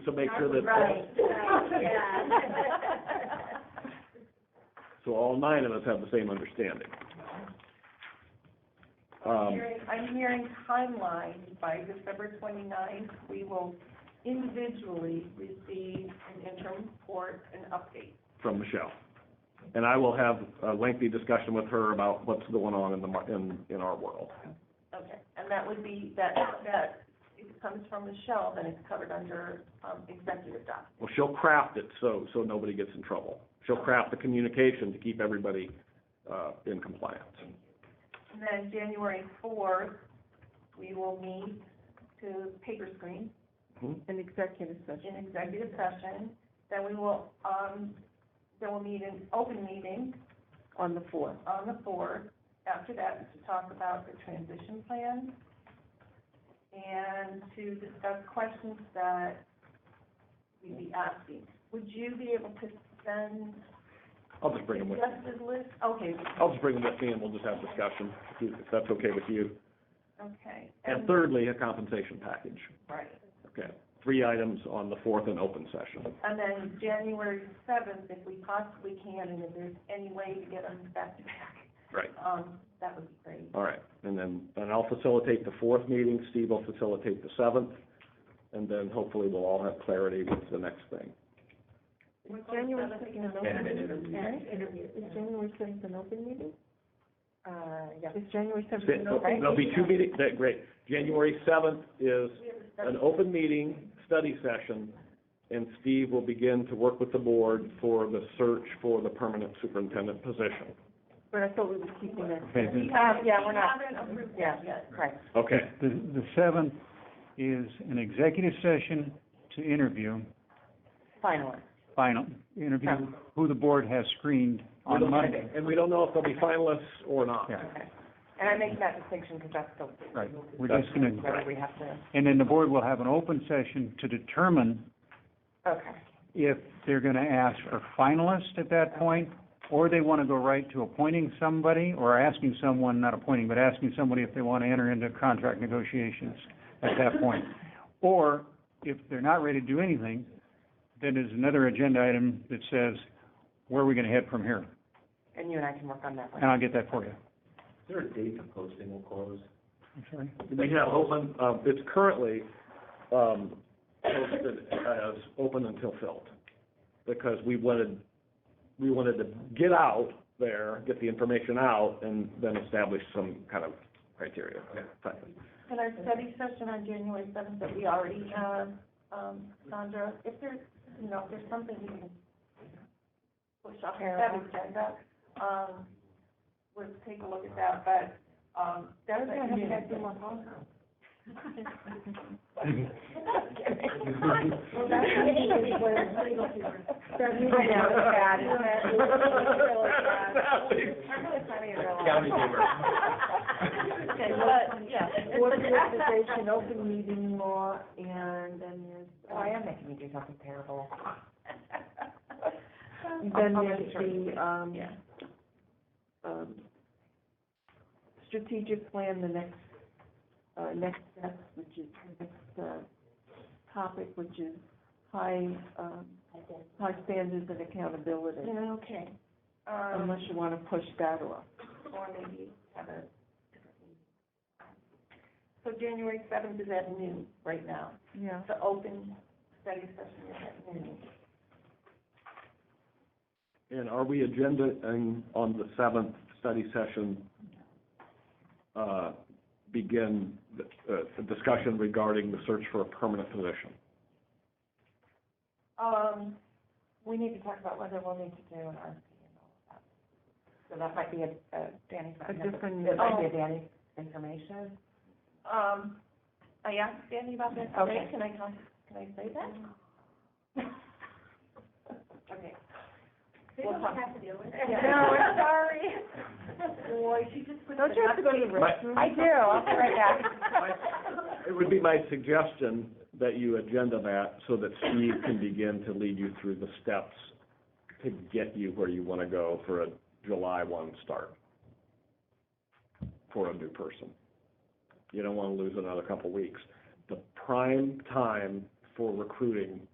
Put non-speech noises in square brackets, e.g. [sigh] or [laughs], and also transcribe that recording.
So make sure that, [laughs] Right, right, so all nine of us have the same understanding. Um, yeah. [laughs] I'm hearing timeline, by December twenty-ninth, we will individually receive an interim report and update. from Michelle. And I will have a lengthy discussion with her about what's going on in the, mar- in, in our world. Okay. And that would be, that, that, if it comes from Michelle, then it's covered under, um, executive doc. Well, she'll craft it so, so nobody gets in trouble. She'll craft the communication to keep everybody, uh, in compliance. And then January fourth, we will meet to paper screen Mhm. An executive session. in executive session. Then we will, um, then we'll meet in open meeting On the fourth. on the fourth. After that, to talk about the transition plan and to discuss questions that we'd be asking. Would you be able to send I'll just bring them with, suggested list? Okay, I'll just bring them with me and we'll just have discussion, if you- if that's okay with you. okay. And thirdly, a compensation package. Right. Okay, three items on the fourth and open session. And then January seventh, if we possibly can, and if there's any way to get them back to back. Right. Um, that would be great. All right, and then, and I'll facilitate the fourth meeting, Steve will facilitate the seventh, and then hopefully we'll all have clarity with the next thing. Was January second an open And an meeting? right? Is January seventh an open meeting? Uh, yeah. Is January seventh an So, open? There'll be two meetings, that, great. January seventh is an open meeting, study session, and Steve will begin to work with the board for the search for the permanent superintendent position. But I thought we were keeping that. Okay, We the, haven't- Uh, yeah, we're not- We haven't approved Yeah. that yet. Right. Okay, the the seventh is an executive session to interview, Finally. final, interview who the board has screened We on don't- Monday. and we don't know if they'll be finalists or not. Yeah, And I make that distinction because that's the. right, we're just gonna, Whether we have to, and then the board will have an open session to determine okay. if they're gonna ask for finalists at that point, or they wanna go right to appointing somebody, or asking someone, not appointing, but asking somebody if they wanna enter into contract negotiations at that point. Or, if they're not ready to do anything, then there's another agenda item that says, where are we gonna head from here? And you and I can work on that one. And I'll get that for you. Is there a date the posting will close? I'm sorry? We have open, um, it's currently, um, posted as open until filled, because we wanted, we wanted to get out there, get the information out, and then establish some kind of criteria. [laughs] Fine. And our study session on January seventh that we already have, um, Sandra, if there's, you know, if there's something you can push off that Terrible. agenda, um, we'll take a look at that, but, um, that's. Thursday, I have to get through my [laughs] Well, [laughs] that's what legal people- [laughs] I know, it's bad, isn't it? It's really bad. I'm really sorry, everyone. County humor. [laughs] Okay, well, yeah. organization, open meeting law, and then there's. Oh, I am making you do something [laughs] terrible. Then I'll there's make sure. the, um, Yeah. um, strategic plan, the next, uh, next step, which is, the next, uh, topic, which is high, um, high standards and accountability. Yeah, okay. Um, Unless you wanna push that off. or maybe have a different meeting. So January seventh is at noon right now. Yeah. The open study session is at noon. And are we agenda, and on the seventh study session, uh, begin the, uh, the discussion regarding the search for a permanent position? Um, we need to talk about whether we'll need to do an RFP and all of that. So that might be a, a Danny's. A different. Oh. It might be a Danny information. Um, I asked Danny about this today, Okay. can I, con- can I say that? [laughs] Okay. They don't have to deal with it. No, I'm sorry. Boy, she just put. Don't you have to go to the restroom? I do, I'll be right back. [laughs] It would be my suggestion that you agenda that so that Steve can begin to lead you through the steps to get you where you want to go for a July one start for a new person. You don't want to lose another couple weeks. The prime time for recruiting